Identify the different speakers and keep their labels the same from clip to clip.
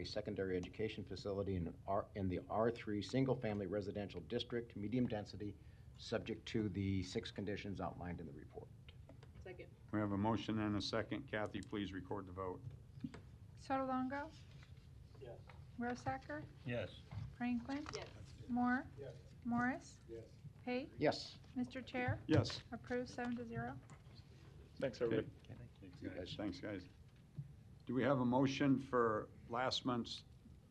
Speaker 1: a secondary education facility in R, in the R3 Single Family Residential District, medium density, subject to the six conditions outlined in the report.
Speaker 2: Second.
Speaker 3: We have a motion and a second. Kathy, please record the vote.
Speaker 4: Sotolongo?
Speaker 5: Yes.
Speaker 4: Rosacker?
Speaker 6: yes,
Speaker 4: Franklin?
Speaker 2: Yes.
Speaker 4: Moore?
Speaker 5: Yes.
Speaker 4: Morris?
Speaker 5: Yes.
Speaker 4: Pate?
Speaker 1: Yes,
Speaker 4: Mr. Chair,
Speaker 3: Yes.
Speaker 4: approved seven to zero.
Speaker 5: Thanks, everybody.
Speaker 1: you guys.
Speaker 3: Thanks, guys. Do we have a motion for last month's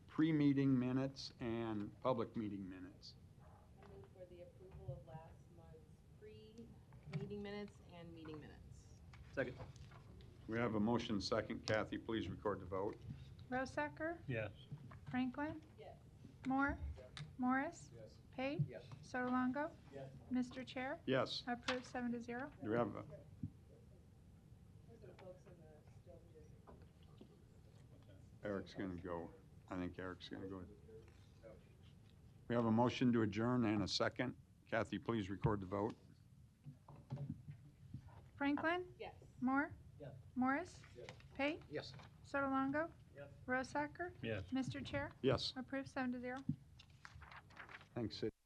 Speaker 3: pre-meeting minutes and public meeting minutes?
Speaker 2: I move for the approval of last month's pre-meeting minutes and meeting minutes.
Speaker 5: Second.
Speaker 3: We have a motion second. Kathy, please record the vote.
Speaker 4: Rosacker,
Speaker 6: yes,
Speaker 4: Franklin,
Speaker 2: Yes.
Speaker 4: Moore, Morris,
Speaker 5: Yes.
Speaker 4: Pate,
Speaker 5: Yes.
Speaker 4: Sotolongo.
Speaker 5: Yes.
Speaker 4: Mr. Chair,
Speaker 3: Yes.
Speaker 4: approved seven to zero.
Speaker 3: Do we have a
Speaker 2: Those are folks in the still music.
Speaker 3: Eric's going to go. I think Eric's going to go. We have a motion to adjourn and a second. Kathy, please record the vote.
Speaker 4: Franklin,
Speaker 2: Yes.
Speaker 4: Moore,
Speaker 5: Yes.
Speaker 4: Morris,
Speaker 5: Yes.
Speaker 4: Pate,
Speaker 1: Yes.
Speaker 4: Sotolongo.
Speaker 5: Yes.
Speaker 4: Rosacker,
Speaker 6: yes.
Speaker 4: Mr. Chair,
Speaker 3: Yes.
Speaker 4: approved seven to zero.
Speaker 3: Thanks, Sid.